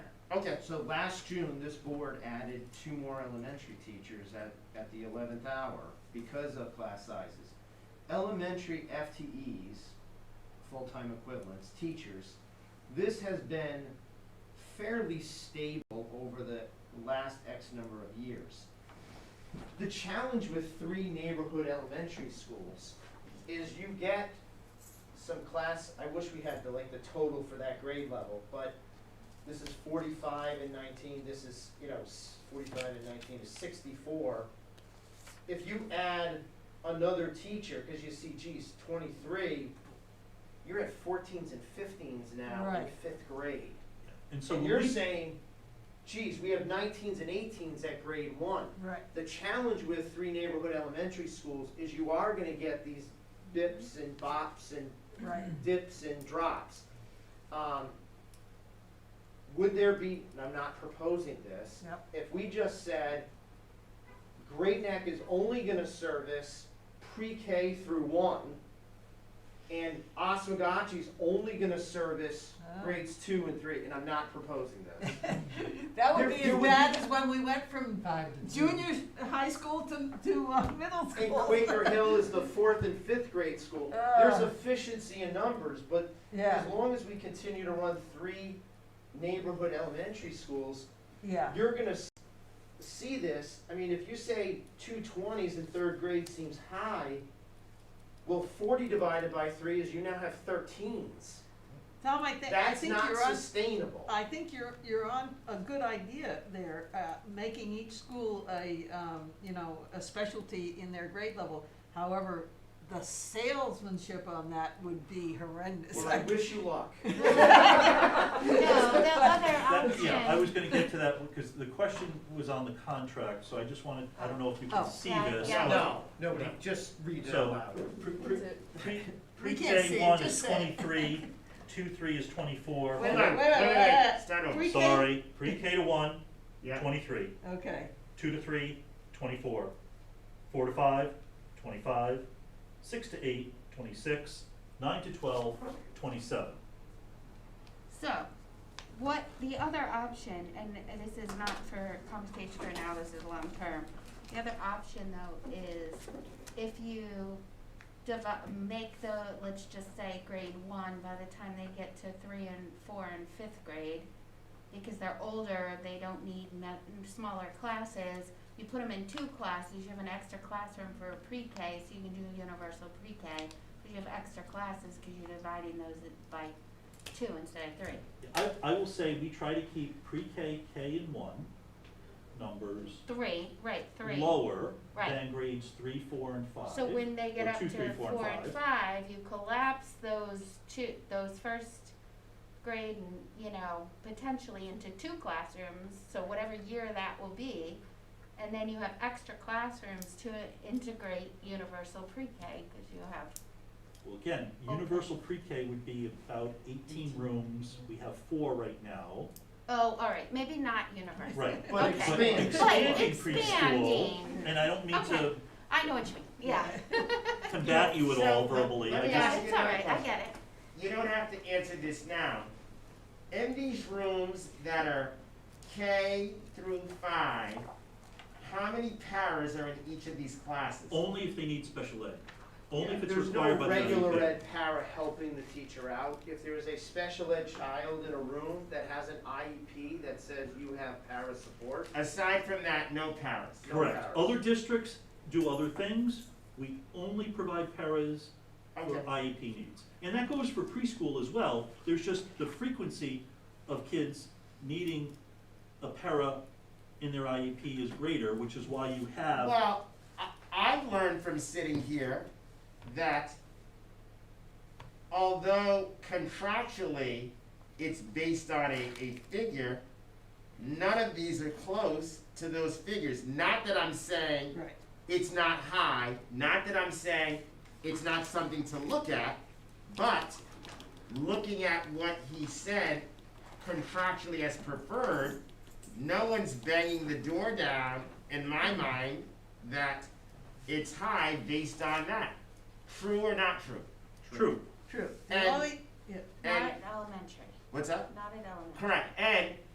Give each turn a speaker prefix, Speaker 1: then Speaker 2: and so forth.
Speaker 1: Okay,
Speaker 2: So last June, this board added two more elementary teachers at, at the eleventh hour because of class sizes. Elementary FTEs, full-time equivalents, teachers, this has been fairly stable over the last X number of years. The challenge with three neighborhood elementary schools is you get some class, I wish we had the, like, the total for that grade level, but this is forty-five and nineteen, this is, you know, s- forty-five and nineteen is sixty-four. If you add another teacher, cause you see, geez, twenty-three, you're at fourteens and fifteens now in
Speaker 3: Right.
Speaker 2: fifth grade.
Speaker 4: And so
Speaker 2: So
Speaker 4: when
Speaker 2: you're
Speaker 4: we-
Speaker 2: saying, geez, we have nineteens and eighteens at grade one.
Speaker 3: Right.
Speaker 2: The challenge with three neighborhood elementary schools is you are gonna get these bips and bops and
Speaker 3: Right.
Speaker 2: dips and drops. Um, Would there be, and I'm not proposing this,
Speaker 3: Yep.
Speaker 2: if we just said, Great Neck is only gonna service pre-K through one, and Osmogachi's only gonna service
Speaker 3: Ah.
Speaker 2: grades two and three, and I'm not proposing this.
Speaker 3: That would
Speaker 2: There-
Speaker 3: be
Speaker 2: there
Speaker 3: as
Speaker 2: would
Speaker 3: bad
Speaker 2: be-
Speaker 3: as when we went from
Speaker 5: Five to two.
Speaker 3: junior high school to, to uh, middle
Speaker 2: And
Speaker 3: school.
Speaker 2: Quaker Hill is the fourth and fifth grade school. There's
Speaker 3: Ah.
Speaker 2: efficiency in numbers, but
Speaker 3: Yeah,
Speaker 2: As long as we continue to run three neighborhood elementary schools,
Speaker 3: yeah,
Speaker 2: you're gonna s- see this, I mean, if you say two twenties in third grade seems high, well, forty divided by three is you now have thirteens.
Speaker 3: Tom, I think, I
Speaker 2: That's
Speaker 3: think
Speaker 2: not
Speaker 3: you're on, Uh,
Speaker 2: sustainable.
Speaker 3: I think you're, you're on a good idea there, uh, making each school a, um, you know, a specialty in their grade level. However, the salesmanship on that would be horrendous.
Speaker 2: Well, I wish you luck.
Speaker 5: No, the other
Speaker 4: That,
Speaker 5: option.
Speaker 4: yeah, I was gonna get to that, because the question was on the contract, so I just wanted, I don't know if you
Speaker 3: Oh.
Speaker 4: can see
Speaker 5: Yeah,
Speaker 4: this.
Speaker 5: yeah.
Speaker 4: but
Speaker 5: No,
Speaker 2: nobody, just read
Speaker 4: it out Pre, pre,
Speaker 3: Is it-
Speaker 4: pre,
Speaker 3: We can't see
Speaker 4: pre-K
Speaker 3: it,
Speaker 4: one
Speaker 3: just
Speaker 4: is
Speaker 3: say it.
Speaker 4: twenty-three, two-three is twenty-four.
Speaker 3: Wait a
Speaker 1: hold
Speaker 3: minute,
Speaker 1: on,
Speaker 3: wait a
Speaker 1: wait, wait,
Speaker 3: minute.
Speaker 1: wait, start over,
Speaker 3: Pre-K-
Speaker 4: Sorry, pre-K to one,
Speaker 1: yeah,
Speaker 4: twenty-three,
Speaker 3: Okay,
Speaker 4: two to three, twenty-four, four to five, twenty-five, six to eight, twenty-six, nine to twelve, twenty-seven.
Speaker 5: So, what, the other option, and this is not for conversation for now, this is long term. The other option though is if you devo- make the, let's just say grade one, by the time they get to three and four and fifth grade, because they're older, they don't need me- smaller classes, you put them in two classes, you have an extra classroom for pre-K, so you can do universal pre-K, but you have extra classes, cause you're dividing those by two instead of three.
Speaker 4: I, I will say, we try to keep pre-K, K and one numbers
Speaker 5: Three, right, three.
Speaker 4: lower
Speaker 5: Right.
Speaker 4: than grades three, four, and five.
Speaker 5: So when they get
Speaker 4: or
Speaker 5: up
Speaker 4: two, three,
Speaker 5: to
Speaker 4: four, and
Speaker 5: four and
Speaker 4: five.
Speaker 5: five, you collapse those two, those first grade and, you know, potentially into two classrooms, so whatever year that will be. And then you have extra classrooms to integrate universal pre-K, cause you have,
Speaker 4: Well, again,
Speaker 5: Oh, Okay.
Speaker 4: universal pre-K would be about eighteen rooms, we have four right now,
Speaker 5: oh, alright, maybe not universal.
Speaker 4: right?
Speaker 2: But
Speaker 5: Okay.
Speaker 4: But
Speaker 2: expand.
Speaker 4: expanding
Speaker 5: But
Speaker 4: preschool,
Speaker 5: expanding.
Speaker 4: and I don't mean to
Speaker 5: Okay. I know what you mean, yeah,
Speaker 4: combat you at all
Speaker 1: So, but-
Speaker 4: verbally, I
Speaker 1: but we
Speaker 4: just,
Speaker 5: yeah,
Speaker 1: ask
Speaker 5: it's
Speaker 1: you another
Speaker 5: alright, I
Speaker 1: question.
Speaker 5: get it.
Speaker 1: you don't have to answer this now. In these rooms that are K through five, how many paras are in each of these classes?
Speaker 4: only if they need special ed, only if it's
Speaker 2: There's no
Speaker 4: required by the IEP.
Speaker 2: regular ed para helping the teacher out. If there is a special ed child in a room that has an IEP that says you have para support,
Speaker 1: Aside from that, no paras.
Speaker 2: no
Speaker 4: Correct,
Speaker 2: paras.
Speaker 4: other districts do other things, we only provide paras for
Speaker 1: Okay.
Speaker 4: IEP needs. And that goes for preschool as well, there's just the frequency of kids needing a para in their IEP is greater, which is why you have,
Speaker 1: Well, I, I've learned from sitting here that although contractually it's based on a, a figure, none of these are close to those figures. Not that I'm saying
Speaker 3: right.
Speaker 1: it's not high, not that I'm saying it's not something to look at, but looking at what he said contractually as preferred, no one's banging the door down in my mind that it's high based on that. True or not true?
Speaker 4: true,
Speaker 3: True.
Speaker 1: And-
Speaker 3: The only, yeah.
Speaker 5: Not
Speaker 1: And,
Speaker 5: at elementary,
Speaker 1: what's up?
Speaker 5: not at elementary.
Speaker 1: Correct, and